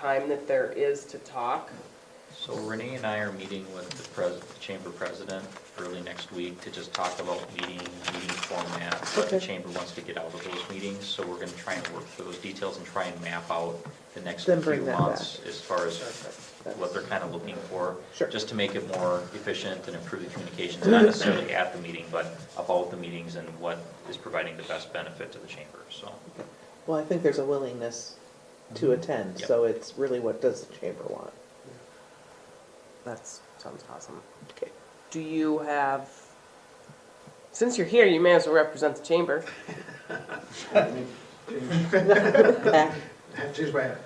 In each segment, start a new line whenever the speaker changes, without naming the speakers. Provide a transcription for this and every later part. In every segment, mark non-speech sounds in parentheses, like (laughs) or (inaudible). time that there is to talk.
So Renee and I are meeting with the pres, the chamber president early next week to just talk about meeting, meeting format. But the
Okay.
chamber wants to get out of those meetings, so we're gonna try and work through those details and try and map out the next few
Then bring that
months
back.
as far as
That's-
what they're kind of looking for.
Sure.
Just to make it more efficient and improve the
(clears throat)
communications, not necessarily at the meeting, but about the meetings and what is providing the best benefit to the chamber, so.
Well, I think there's a willingness to attend,
Yep.
so it's really what does the chamber want?
That sounds awesome.
Okay.
Do you have, since you're here, you may as well represent the chamber.
Heck,
(laughs) Change my hat.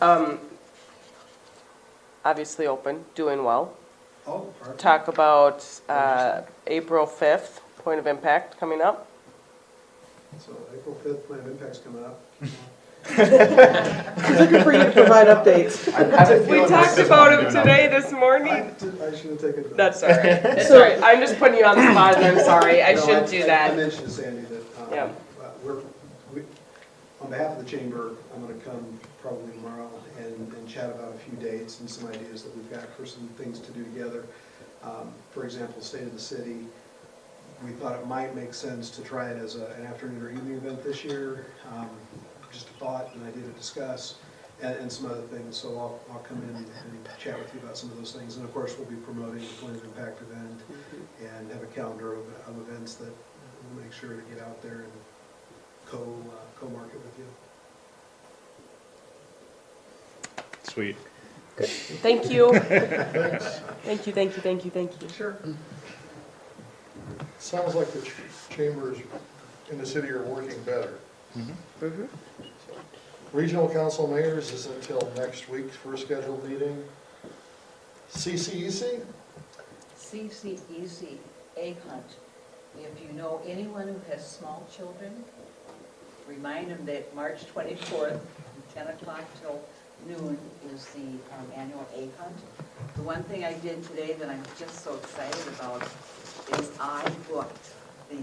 Um, Obviously open, doing well.
Oh, perfect.
Talk about uh, April 5th, point of impact coming up.
So April fifth, plan of impact's coming up.
Looking for you to provide updates.
We talked about him today, this morning.
I did- I should have taken. the-
That's all (laughs) right. Sorry, I'm just putting you on the spot and I'm
(laughs)
sorry. I
No,
shouldn't do
I
that.
mentioned to Sandy that, um,
Yeah.
uh, we're, we, on behalf of the chamber, I'm gonna come probably tomorrow and, and chat about a few dates and some ideas that we've got for some things to do together. Um, For example, State of the City, we thought it might make sense to try it as a- an afternoon or evening event this year. Um, Just a thought, an idea to discuss, and, and some other things, so I'll, I'll come in and chat with you about some of those things. And of course, we'll be promoting the Plan of Impact event and have a calendar of, of events that we'll make sure to get out there and co, uh, co-market with you.
Sweet.
Thank (laughs) you. Thank you, thank you, thank you, thank you.
Sure. Sounds like the ch- chambers in the city are working better. Regional council mayors is until next week for a scheduled meeting. E CCEC,
CCEZ egg E hunt. If you know anyone who has small children, remind them that March 24th, 10 o'clock till noon is the um, annual egg hunt. The one thing I did today that I'm just so excited about is I booked the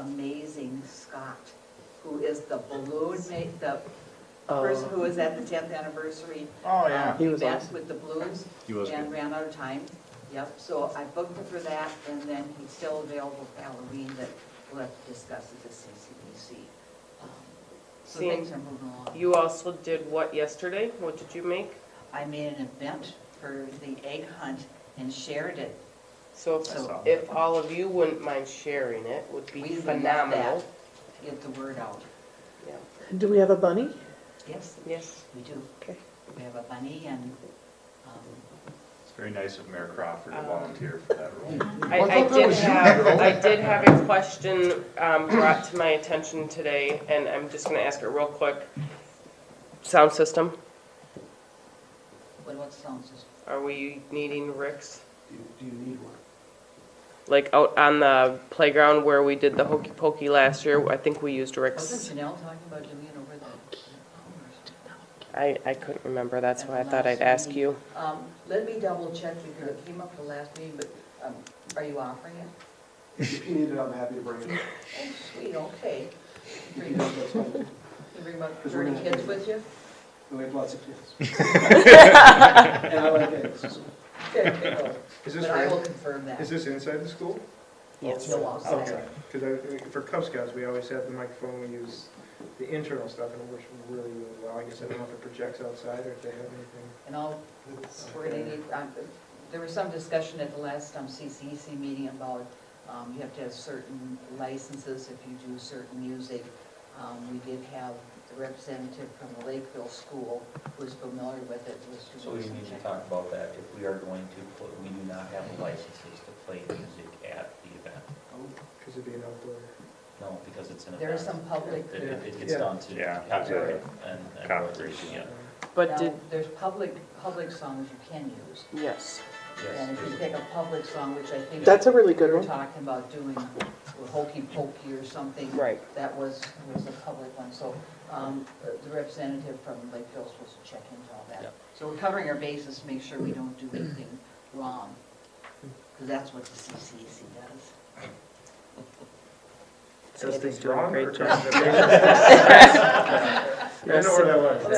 amazing Scott, who is the balloon mate, the person who was at the 10th anniversary.
Oh, yeah.
um,
Oh. He was
event
awesome.
With the balloons.
He was
And
good.
ran out of time. Yep, so I booked it for that, and then he's still available for Halloween, but we'll have to discuss at the CCDC. Um, So
Sam,
things are moving along.
You also did what yesterday? What did you make?
I made an event for the egg hunt and shared it.
So
So-
if, if all of you wouldn't mind sharing it, would be
We would love
phenomenal.
that. Get the word out.
Yeah.
Do we have a bunny?
Yes,
Yes.
we do.
Okay.
We have a bunny and, um,
It's very nice of Mayor Crawford to volunteer for that role.
I,
Well, I
I
thought that
did
was you,
have,
Carol.
I did have a question um, brought to my attention today, and I'm just gonna ask it real quick. Sound system,
what about sound system?
are we needing Rick's?
Do you- Do you need one?
Like out on the playground where we did the hokey pokey last year, I think we used Rick's.
Wasn't Janelle talking about doing it over the hours?
I, I couldn't remember, that's why I thought I'd ask you.
Um, let me double check, because it came up the last meeting, but, um, are you offering it?
If you need it, I'm happy to bring it.
Oh, sweet, okay. (laughs) Bring
Yes, that's fine.
You bring about
Because we're
30
gonna-
kids with you?
We have lots of
(laughs)
kids. And I like eggs. (laughs)
Good, good.
Is this,
But I will
right-
confirm that.
is this inside the school?
Yes.
No, outside.
Because for Cub Scouts, we always have the microphone, we use the internal stuff, and it works really, really well. I guess I don't know if it projects outside or if they have anything. Uh,
And I'll,
that's-
we're gonna need, um, there was some discussion at the last um, CCEC meeting about, um, you have to have certain licenses if you do certain music. Um, we did have the representative from the Lakeville School who was familiar with it, was
So
doing
we
some
need to
checking.
talk about that, if we are going to, pl- we do not have the licenses to play music at the event.
Because it'd be an outdoor.
No, because it's an event.
There is some public,
It- It it gets
Yeah.
down to
Yeah.
copyright and. and
Copyright.
royalties, yeah.
But did,
now, there's public, public songs you can use.
yes.
Yes,
And if you
there's-
pick a public song, which I think.
That's a really good
we We're
one.
talking about doing with hokey pokey or something.
Right.
That was, was a public one, so um, the representative from Lakeville was supposed to check into all
Yeah.
that. So we're covering our bases, to make sure we don't do anything wrong, because that's what the CCC does.
Does
Sandy's
things
doing a
wrong or
great
does
job.
it- I know where that was.